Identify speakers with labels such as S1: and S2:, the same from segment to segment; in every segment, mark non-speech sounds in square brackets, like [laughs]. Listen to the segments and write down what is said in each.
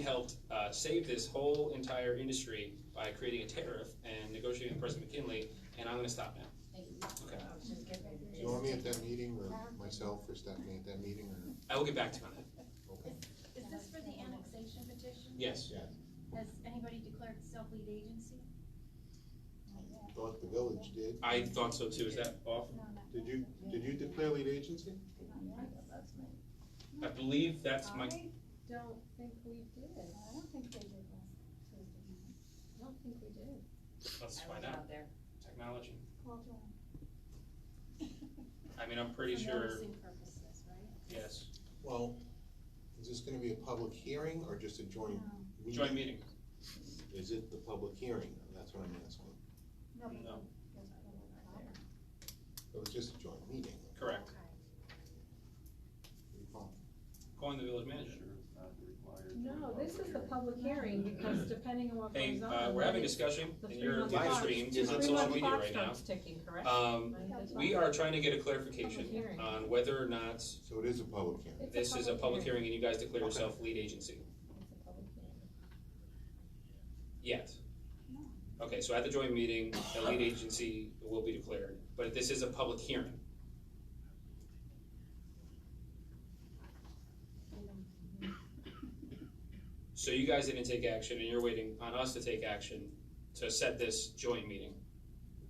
S1: helped uh, save this whole entire industry by creating a tariff and negotiating with President McKinley, and I'm gonna stop now. Okay.
S2: Do
S3: Do you want me at that meeting, or myself, or Stephanie at that meeting, or,
S1: I will get back to you on that.
S3: okay?
S2: Is this for the annexation petition?
S1: Yes.
S2: Has anybody declared self lead agency?
S3: Thought the village did.
S1: I thought so too. Is that off?
S3: Did you, did you declare lead agency?
S1: I believe that's my,
S4: Don't think we did. I don't think they did last Thursday night. I don't think we did.
S1: let's find out.
S5: there.
S1: Technology.
S4: Call John.
S1: I mean, I'm pretty sure,
S5: noticing purposes, right?
S1: yes.
S3: Well, is this gonna be a public hearing, or just a joint meeting?
S1: Joint meeting.
S3: Is it the public hearing? That's what I'm asking.
S4: No.
S1: No.
S3: It was just a joint meeting.
S1: Correct. Calling the village manager.
S4: No, this is the public hearing because depending on what
S1: Hmm. Hey,
S4: goes on.
S1: uh, we're having a discussion
S4: the
S1: and you're
S4: three-month
S1: live
S4: clock-
S1: streamed
S4: the
S1: on
S4: three-month
S1: social media
S4: clock
S1: right now.
S4: starts ticking, correct?
S1: Um, we are trying to get a clarification
S4: Public hearing.
S1: on whether or not
S3: So it is a public hearing.
S4: It's
S1: this is a public hearing and you guys declare
S3: Okay.
S1: yourself lead agency.
S4: It's a public hearing.
S1: Yet.
S4: No.
S1: Okay, so at the joint meeting, the lead agency will be declared, but this is a public hearing. So you guys didn't take action and you're waiting on us to take action to set this joint meeting.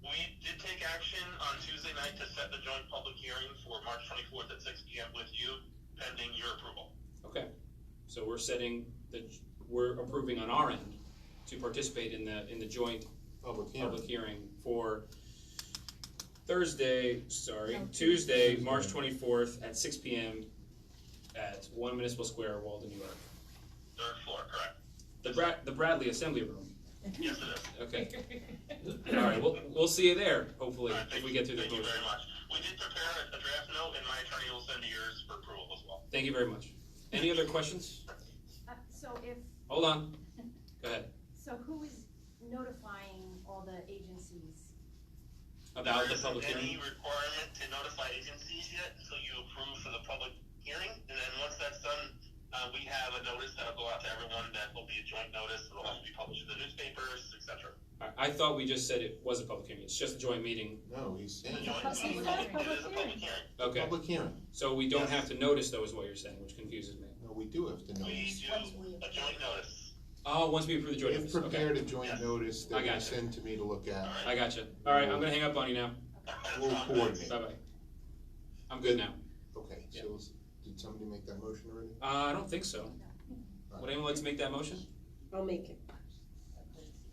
S6: We did take action on Tuesday night to set the joint public hearing for March twenty-fourth at six P M with you, pending your approval.
S1: Okay, so we're setting the, we're approving on our end to participate in the, in the joint
S3: Public hearing.
S1: public hearing for Thursday, sorry, Tuesday, March twenty-fourth at six P M at One Municipal Square, Walden, New York.
S6: Third floor, correct?
S1: The Brad, the Bradley Assembly Room,
S6: Yes, it is.
S1: okay.
S4: [laughs]
S1: Alright, we'll, we'll see you there, hopefully,
S6: Alright,
S1: if
S6: thank
S1: we
S6: you-
S1: get through this
S6: Thank you
S1: motion.
S6: very much. We did prepare a a draft note, and my attorney will send yours for approval as well.
S1: Thank you very much. Any other questions?
S2: Uh, so if,
S1: Hold on, go ahead.
S2: so who is notifying all the agencies?
S1: About
S6: There
S1: the
S6: isn't
S1: public hearing,
S6: Any requirement to notify agencies yet, so you approve for the public hearing, and then once that's done, uh, we have a notice that'll go out to everyone, that will be a joint notice, it'll also be published in the newspapers, et cetera.
S1: I, I thought we just said it was a public hearing, it's just a joint meeting,
S3: No, he's saying,
S6: Joint-
S4: public-
S6: it's a
S4: it's a
S6: public- it is a
S4: public
S6: public hearing.
S1: okay.
S3: public hearing.
S1: So we don't have to notice though is what you're saying, which confuses me.
S3: No, we do have to
S6: We
S3: notice.
S6: do a joint notice.
S1: Oh, once we approve the joint
S3: They've
S1: notice, okay.
S3: prepared a joint notice
S1: I
S3: that
S1: gotcha.
S3: you send to me to look at.
S1: I gotcha. All right, I'm gonna hang up on you now.
S3: We'll coordinate.
S1: Bye bye. I'm good now.
S3: Okay,
S1: Yeah.
S3: so is- did somebody make that motion already?
S1: Uh, I don't think so. Would anyone like to make that motion?
S5: I'll make it.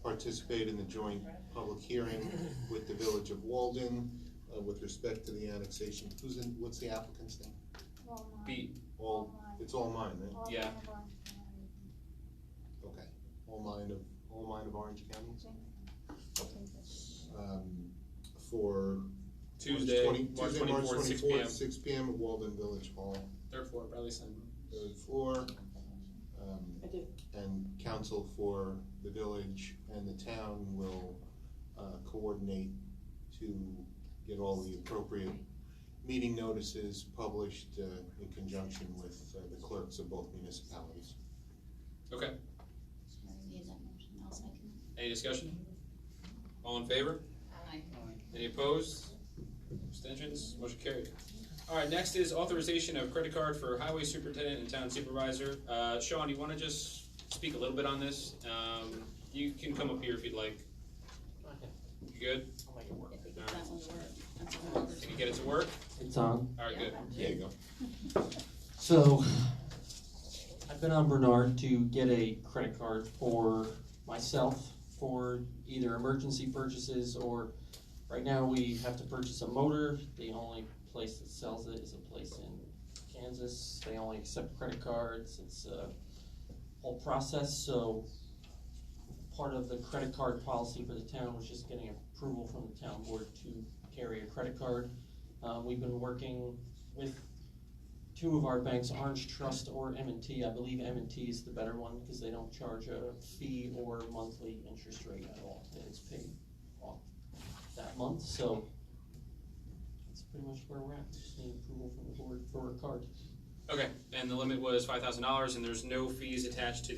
S3: Participate in the joint public hearing with the Village of Walden uh, with respect to the annexation. Who's in, what's the applicant's name?
S4: All mine.
S1: B.
S4: All
S3: All,
S4: mine.
S3: it's all mine, right?
S4: All mine
S1: yeah.
S4: of Orange County.
S3: Okay. All mine of, all mine of Orange County? Um, For
S1: Tuesday,
S3: March 20
S1: March
S3: Tuesday, March
S1: twenty-fourth, six P M.
S3: twenty-fourth, six P M at Walden Village Hall.
S1: Third floor, Bradley Center.
S3: third floor. um,
S5: I do.
S3: And council for the village and the town will uh, coordinate to get all the appropriate meeting notices published uh, in conjunction with uh, the clerks of both municipalities.
S1: Any discussion? All in favor? Any opposed? Abstentions? Motion carried. All right, next is authorization of credit card for highway superintendent and town supervisor. Uh, Sean, do you wanna just speak a little bit on this? Um, you can come up here if you'd like. You good?
S7: I'll make it work.
S5: If we get that one to work, that's a whole other.
S1: Can you get it to work?
S7: It's on.
S1: All right, good.
S3: There you go.
S7: So, I've been on Bernard to get a credit card for myself for either emergency purchases or, right now, we have to purchase a motor. The only place that sells it is a place in Kansas. They only accept credit cards. It's a whole process, so part of the credit card policy for the town was just getting approval from the town board to carry a credit card. Uh, we've been working with two of our banks, Orange Trust or M&T. I believe M&T is the better one because they don't charge a fee or monthly interest rate at all. And it's paid off that month, so that's pretty much where we're at. Just need approval from the board for a card.
S1: Okay, and the limit was five thousand dollars, and there's no fees attached to the